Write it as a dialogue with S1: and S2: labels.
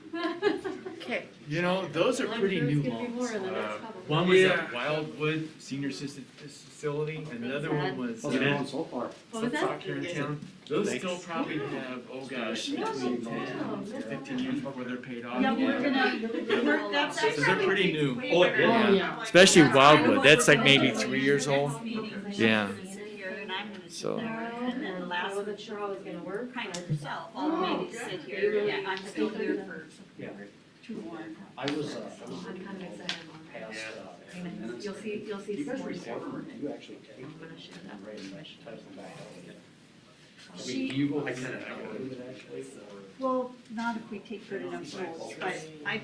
S1: okay.
S2: You know, those are
S1: I'm
S2: pretty
S1: sure it's
S2: new
S1: gonna be more
S2: loans.
S1: in the next
S3: Uh,
S1: couple.
S2: One was
S3: Yeah.
S2: at Wildwood Senior Assisted Facility, and another one was
S4: How's it
S2: at
S4: going so far?
S1: What was that?
S2: Woodstock here in town. Those
S4: Thanks.
S2: still probably have, oh gosh,
S1: No, no,
S2: between
S1: no,
S2: 10
S1: no.
S2: to fifteen years before they're paid off.
S5: Yeah, we're
S1: Yeah.
S5: gonna, we're, that's.
S2: So they're pretty new.
S4: Oh, it
S1: Oh,
S4: did?
S1: yeah.
S6: Especially
S5: That's
S6: Wildwood,
S5: kind of
S6: that's
S5: what
S6: like maybe
S5: we're
S6: three
S5: doing.
S6: years
S5: Next
S6: old.
S5: meeting, I'm
S6: Yeah.
S5: gonna sit here and I'm gonna sit
S6: So-
S5: there, And then the
S1: I
S5: last,
S1: wasn't sure how it was gonna work. Oh,
S5: kind of yourself, I'll maybe sit here, yeah, I'm still here for
S4: Yeah,
S5: two more.
S4: I was, uh, I was.
S1: I'm kind of excited on that.
S4: Past, uh,
S1: And
S4: minutes.
S1: You'll see, you'll
S4: Do
S1: see
S4: you
S1: some
S4: guys
S1: more stuff
S4: record,
S1: on
S4: or
S1: it.
S4: do you actually take?
S1: I'm gonna share that.
S4: and write them, type them back out again? I mean,
S5: She,
S4: do you go? I kinda. Actually, or?
S5: well, not if we take good enough notes, but I